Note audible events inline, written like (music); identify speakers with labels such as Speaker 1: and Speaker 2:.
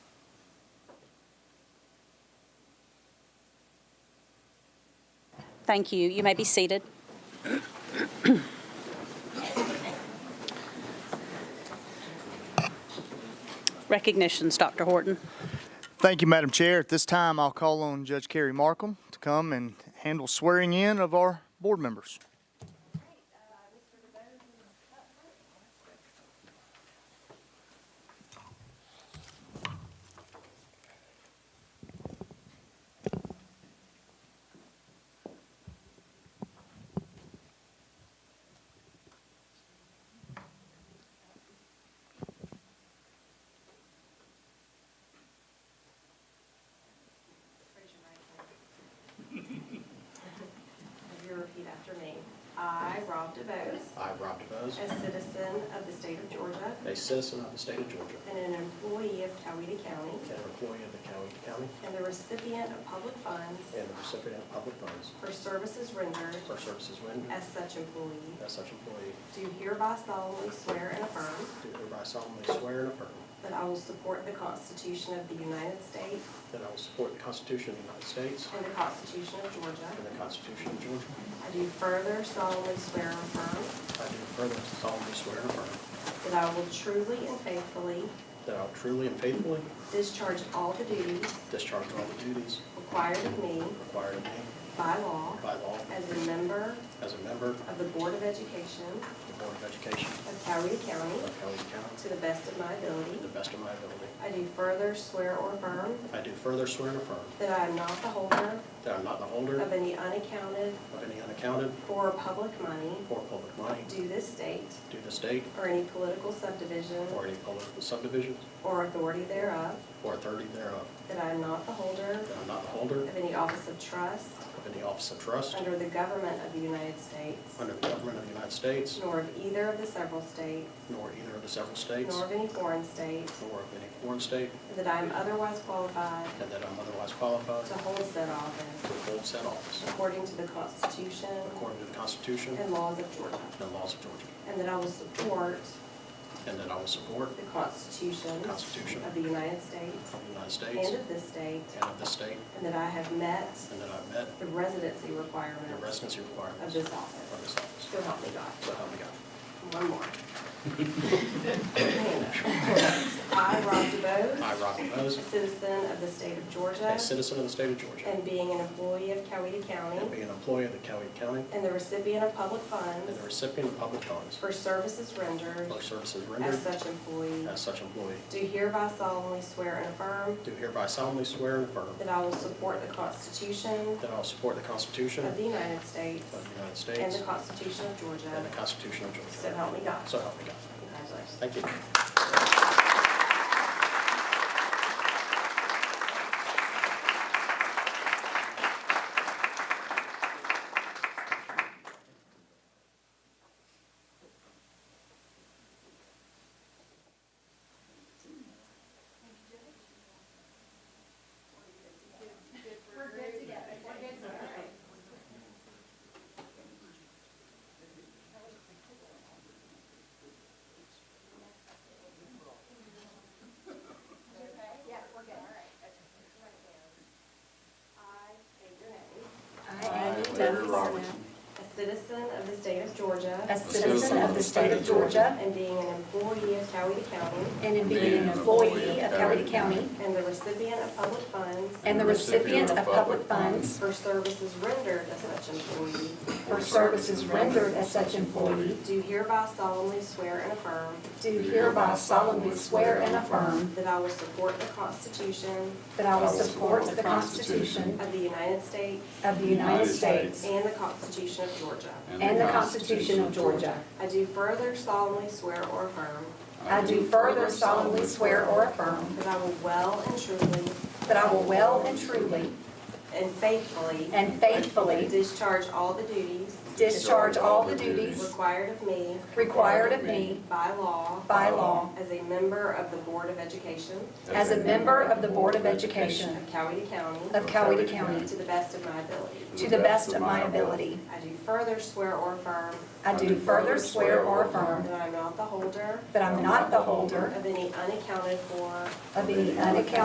Speaker 1: Thank you. You may be seated. Recognitions, Dr. Horton.
Speaker 2: Thank you, Madam Chair. At this time, I'll call on Judge Kerry Markham to come and handle swearing in of our board members.
Speaker 3: Raise your right hand. You repeat after me. I, Rob DeBose,
Speaker 4: I, Rob DeBose,
Speaker 3: a citizen of the state of Georgia
Speaker 4: a citizen of the state of Georgia
Speaker 3: and an employee of Coweta County
Speaker 4: and an employee of the Coweta County
Speaker 3: and the recipient of public funds
Speaker 4: and the recipient of public funds
Speaker 3: for services rendered
Speaker 4: for services rendered
Speaker 3: as such employee,
Speaker 4: as such employee,
Speaker 3: do hereby solemnly swear and affirm
Speaker 4: do hereby solemnly swear and affirm
Speaker 3: that I will support the Constitution of the United States
Speaker 4: that I will support the Constitution of the United States
Speaker 3: and the Constitution of
Speaker 4: and
Speaker 3: Georgia.
Speaker 4: the Constitution of Georgia.
Speaker 3: I do further solemnly swear and affirm
Speaker 4: I do further solemnly swear and affirm
Speaker 3: that I will truly and faithfully
Speaker 4: that I will truly and faithfully
Speaker 3: discharge all the duties
Speaker 4: discharge all the duties
Speaker 3: required of me
Speaker 4: required of me
Speaker 3: by law
Speaker 4: by law
Speaker 3: as a member
Speaker 4: as a member of
Speaker 3: of the Board of Education
Speaker 4: the Board of Education
Speaker 3: of Coweta County
Speaker 4: of Coweta County
Speaker 3: to the best of my ability.
Speaker 4: to the best of my ability.
Speaker 3: I do further swear or affirm
Speaker 4: I do further swear and affirm
Speaker 3: that I am not the holder
Speaker 4: that I am not the holder
Speaker 3: of any unaccounted
Speaker 4: of any unaccounted
Speaker 3: for public money
Speaker 4: or public money
Speaker 3: due this state
Speaker 4: due to state
Speaker 3: or any political subdivision
Speaker 4: or any political subdivisions
Speaker 3: or authority thereof,
Speaker 4: or authority thereof,
Speaker 3: that I am not the holder
Speaker 4: that I am not the holder
Speaker 3: of any office of trust
Speaker 4: of any office of trust
Speaker 3: under the government of the United States,
Speaker 4: under the government of the United States,
Speaker 3: nor of either of the several states,
Speaker 4: nor either of the several states,
Speaker 3: nor of any foreign state,
Speaker 4: nor of any foreign state,
Speaker 3: and that I am otherwise qualified
Speaker 4: and that I am otherwise qualified
Speaker 3: to
Speaker 4: to
Speaker 3: hold said office
Speaker 4: hold said office
Speaker 3: according to the Constitution
Speaker 4: according to the Constitution
Speaker 3: and laws of Georgia,
Speaker 4: and laws of Georgia,
Speaker 3: and that I will support
Speaker 4: and that I will support
Speaker 3: the Constitution
Speaker 4: Constitution.
Speaker 3: of the United States
Speaker 4: the United
Speaker 3: and
Speaker 4: States
Speaker 3: of this state,
Speaker 4: and of this state,
Speaker 3: and that I have met
Speaker 4: and that I have met
Speaker 3: the residency
Speaker 4: the
Speaker 3: requirements
Speaker 4: residency
Speaker 3: of
Speaker 4: requirements
Speaker 3: this
Speaker 4: of this
Speaker 3: office.
Speaker 4: office.
Speaker 3: So help me God.
Speaker 4: So help me God.
Speaker 3: One
Speaker 4: (laughs)
Speaker 3: more. I, Rob DeBose.
Speaker 4: I, Rob DeBose,
Speaker 3: A citizen of the state of Georgia.
Speaker 4: a citizen of the state of Georgia,
Speaker 3: And being an employee of Coweta County.
Speaker 4: and being an employee of the Coweta County
Speaker 3: And the recipient of public funds.
Speaker 4: and the recipient of public funds
Speaker 3: For services rendered.
Speaker 4: for services rendered
Speaker 3: As such employee.
Speaker 4: as such employee,
Speaker 3: Do hereby solemnly swear and affirm.
Speaker 4: do hereby solemnly swear and affirm
Speaker 3: That I will support the Constitution.
Speaker 4: that I will support the Constitution
Speaker 3: Of
Speaker 4: of
Speaker 3: the United States.
Speaker 4: the United
Speaker 3: And
Speaker 4: States
Speaker 3: the Constitution of
Speaker 4: and the
Speaker 3: Georgia.
Speaker 4: Constitution of Georgia.
Speaker 3: So help me God.
Speaker 4: So help me God.
Speaker 3: Congratulations.
Speaker 4: Thank you.
Speaker 3: I state your name.
Speaker 5: I, Debbie Roberts,
Speaker 3: A citizen of the state of Georgia.
Speaker 5: a citizen of the state of Georgia,
Speaker 3: And being an employee of Coweta County
Speaker 5: and in being an employee of Coweta County,
Speaker 3: and the recipient of public funds
Speaker 5: and the recipient of public funds
Speaker 3: for services rendered as such employee,
Speaker 5: for services rendered as such employee,
Speaker 3: do hereby solemnly swear and affirm
Speaker 5: do hereby solemnly swear and affirm
Speaker 3: that I will support the Constitution
Speaker 5: that I will support the Constitution
Speaker 3: of the United States
Speaker 5: of the United States
Speaker 3: and the Constitution of Georgia.
Speaker 5: and the Constitution of Georgia.
Speaker 3: I do further solemnly swear or affirm
Speaker 5: I do further solemnly swear or affirm
Speaker 3: that I will well and truly
Speaker 5: that I will well and truly
Speaker 3: and faithfully
Speaker 5: and faithfully
Speaker 3: discharge all the duties
Speaker 5: discharge all the duties
Speaker 3: required of me
Speaker 5: required of me
Speaker 3: by law
Speaker 5: by law
Speaker 3: as a member of the Board of Education
Speaker 5: As a member of the Board of Education
Speaker 3: of Coweta County
Speaker 5: of Coweta County,
Speaker 3: to the best of my ability.
Speaker 5: to the best of my ability,
Speaker 3: I do further swear or affirm
Speaker 5: I do further swear or affirm
Speaker 3: that I am not the holder
Speaker 5: that I'm not the holder
Speaker 3: of any unaccounted for
Speaker 5: of any unaccounted